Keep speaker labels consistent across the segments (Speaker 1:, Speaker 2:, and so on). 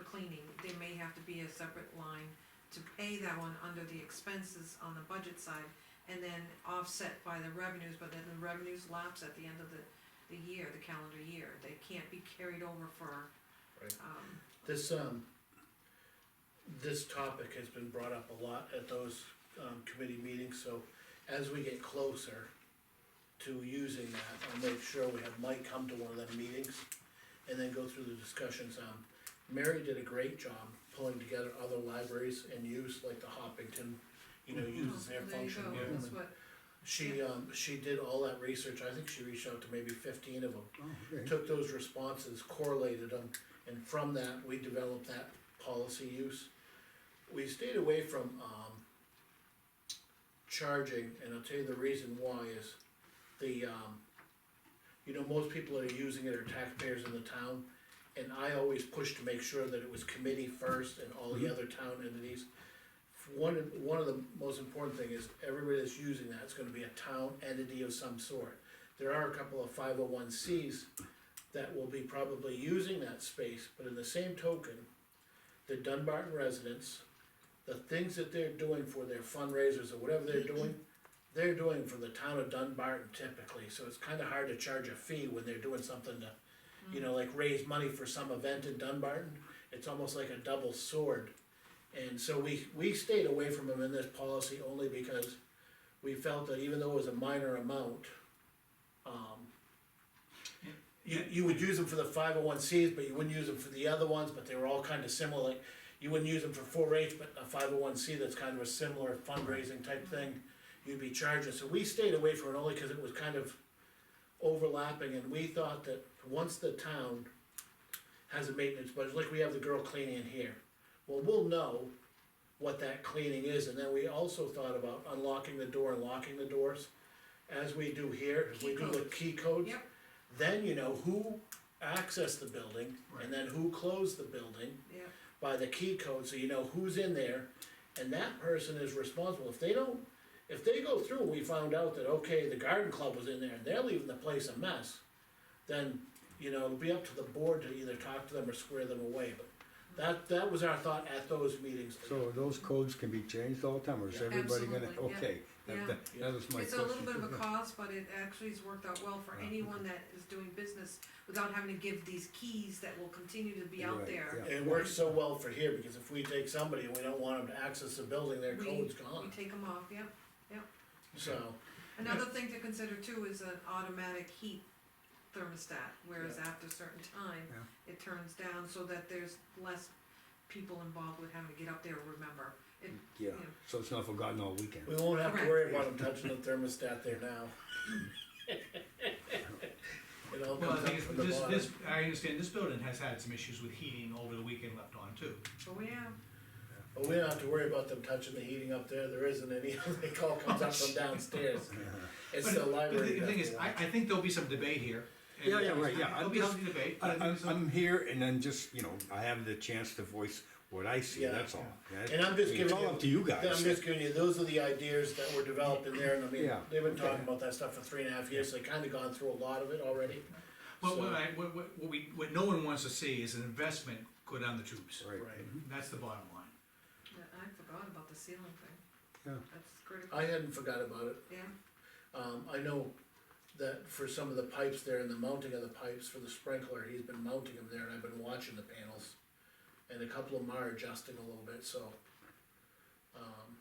Speaker 1: cleaning, there may have to be a separate line to pay that one under the expenses on the budget side, and then offset by the revenues, but then the revenues lapse at the end of the, the year, the calendar year, they can't be carried over for,
Speaker 2: Right.
Speaker 1: um,
Speaker 2: This, um, this topic has been brought up a lot at those, um, committee meetings, so as we get closer to using that, I'll make sure we have Mike come to one of them meetings and then go through the discussions. Um, Mary did a great job pulling together other libraries and use, like the Hoppington, you know, uses their
Speaker 1: Mm-hmm. Oh, there you
Speaker 2: function.
Speaker 1: go,
Speaker 2: room
Speaker 1: that's
Speaker 2: and-
Speaker 1: what,
Speaker 2: She, um, she did all that research, I think she reached out to maybe fifteen of them
Speaker 3: Oh, okay.
Speaker 2: took those responses, correlated them, and from that, we developed that policy use. We stayed away from, um, charging, and I'll tell you the reason why is the, um, you know, most people that are using it are taxpayers in the town, and I always pushed to make sure that it was committee first and all the other town entities. One, one of the most important thing is everybody that's using that is gonna be a town entity of some sort. There are a couple of five oh one Cs that will be probably using that space, but in the same token, the Dunbarton residents, the things that they're doing for their fundraisers or whatever they're doing, they're doing for the town of Dunbarton typically, so it's kinda hard to charge a fee when they're doing something to, you know, like raise money for some event in Dunbarton, it's almost like a double sword. And so we, we stayed away from them in this policy only because we felt that even though it was a minor amount, um, you, you would use them for the five oh one Cs, but you wouldn't use them for the other ones, but they were all kind of similar, like, you wouldn't use them for four H, but a five oh one C that's kind of a similar fundraising type thing, you'd be charging, so we stayed away from it only because it was kind of overlapping, and we thought that once the town has a maintenance budget, like we have the girl cleaning in here, well, we'll know what that cleaning is, and then we also thought about unlocking the door and locking the doors, as we do here, as we do with key codes
Speaker 1: yep,
Speaker 2: then you know who accessed the building and then who closed the building
Speaker 1: yep,
Speaker 2: by the key code, so you know who's in there. And that person is responsible, if they don't, if they go through, we found out that, okay, the garden club was in there and they're leaving the place a mess. Then, you know, it'll be up to the board to either talk to them or square them away, but that, that was our thought at those meetings.
Speaker 3: So those codes can be changed all the time, or is
Speaker 2: Yeah.
Speaker 3: everybody gonna,
Speaker 1: Absolutely, yeah.
Speaker 3: okay,
Speaker 1: Yeah.
Speaker 3: that, that, that was my question.
Speaker 1: it's a little bit of a cost, but it actually has worked out well for
Speaker 3: Ah,
Speaker 1: anyone that is doing business without having to give these keys that will continue to be out
Speaker 3: Right,
Speaker 1: there.
Speaker 3: yeah.
Speaker 2: It works so well for here, because if we take somebody and we don't want them to access the building, their
Speaker 1: We-
Speaker 2: code's
Speaker 1: We
Speaker 2: gone,
Speaker 1: take them off, yep.
Speaker 2: so.
Speaker 1: Another thing to consider too is an automatic heat thermostat, whereas after a certain time,
Speaker 3: Yeah.
Speaker 1: it turns down so that there's less people involved with having to get up there and remember. It,
Speaker 3: Yeah,
Speaker 1: Yeah.
Speaker 3: so it's not forgotten all weekend.
Speaker 2: We won't have to worry about him touching the thermostat there now. It all
Speaker 4: Well, I
Speaker 2: comes up
Speaker 4: think
Speaker 2: from
Speaker 4: it's-
Speaker 2: the
Speaker 4: this,
Speaker 2: bottom.
Speaker 4: this, I understand this building has had some issues with heating over the weekend left on too.
Speaker 1: oh yeah,
Speaker 2: But we don't have to worry about them touching the heating up there, there isn't any, it all comes up from downstairs. It's
Speaker 4: But-
Speaker 2: the
Speaker 4: But
Speaker 2: library.
Speaker 4: the thing is,
Speaker 2: that's
Speaker 4: I, I think there'll be some debate here. and
Speaker 3: Yeah, yeah, right, yeah.
Speaker 4: There'll be some debate,
Speaker 3: I,
Speaker 4: but I
Speaker 3: I'm,
Speaker 4: think some-
Speaker 3: I'm here and then just, you know, I have the chance to voice what I see,
Speaker 2: Yeah.
Speaker 3: that's all. That-
Speaker 2: And I'm just
Speaker 3: I mean,
Speaker 2: giving
Speaker 3: It's
Speaker 2: you-
Speaker 3: all up to you
Speaker 2: the- I'm
Speaker 3: guys.
Speaker 2: just giving you, those are the ideas that were developed in there, and I mean,
Speaker 3: Yeah,
Speaker 2: they've been talking
Speaker 3: okay.
Speaker 2: about that stuff for three and a half years, so they kinda gone through a lot of it already.
Speaker 4: Well, what
Speaker 2: So-
Speaker 4: I, what, what what we, what no one wants to see is an investment go down the tubes.
Speaker 3: Right,
Speaker 2: Right.
Speaker 4: That's the bottom line.
Speaker 1: Yeah, I forgot about the ceiling thing.
Speaker 3: Yeah.
Speaker 1: That's critical,
Speaker 2: I hadn't forgot about it,
Speaker 1: yeah,
Speaker 2: Um, I know that for some of the pipes there and the mounting of the pipes for the sprinkler, he's been mounting them there and I've been watching the panels. And a couple of them are adjusting a little bit, so. Um,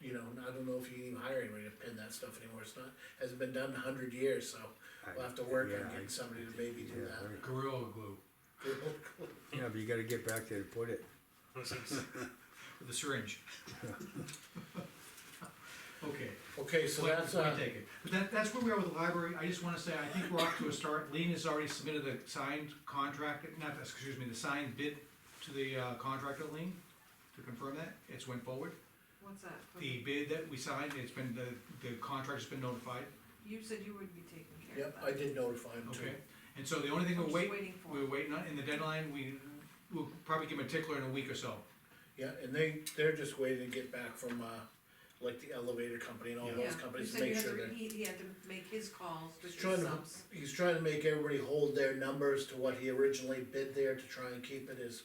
Speaker 2: you know, and I don't know if you can even hire anybody to pin that stuff anymore, it's not, hasn't been done in a hundred years, so we'll have to work
Speaker 3: Yeah,
Speaker 2: on getting somebody to maybe
Speaker 3: yeah,
Speaker 2: do that.
Speaker 3: right.
Speaker 4: Gorilla glue
Speaker 3: yeah, but you gotta get back there to put it.
Speaker 4: with a syringe. Okay.
Speaker 2: Okay, so
Speaker 4: Point-
Speaker 2: that's,
Speaker 4: point
Speaker 2: uh,
Speaker 4: taken. But that, that's where we are with the library, I just wanna say, I think we're off to a start, Lean has already submitted the signed contract, not, the- excuse me, the signed bid to the uh, contractor, Lean, to confirm that, it's went forward.
Speaker 1: what's that? for?
Speaker 4: The bid that we signed, it's been, the, the contractor's been notified,
Speaker 1: You said you would be taking care of
Speaker 2: yep,
Speaker 1: that.
Speaker 2: I did notify him too.
Speaker 4: okay? And so the only thing
Speaker 1: I'm
Speaker 4: we're
Speaker 1: just
Speaker 4: waiting,
Speaker 1: waiting for
Speaker 4: we're
Speaker 1: it.
Speaker 4: waiting on, and the deadline, we, we'll probably give him a tickler in a week or so.
Speaker 2: Yeah, and they, they're just waiting to get back from, uh, like the elevator company and all
Speaker 1: Yeah,
Speaker 2: those companies
Speaker 1: you
Speaker 2: to
Speaker 1: said you
Speaker 2: make
Speaker 1: had
Speaker 2: sure
Speaker 1: to-
Speaker 2: they're.
Speaker 1: He, he had to make his calls, to
Speaker 2: He's
Speaker 1: his
Speaker 2: trying to-
Speaker 1: subs.
Speaker 2: he's trying to make everybody hold their numbers to what he originally bid there to try and keep it as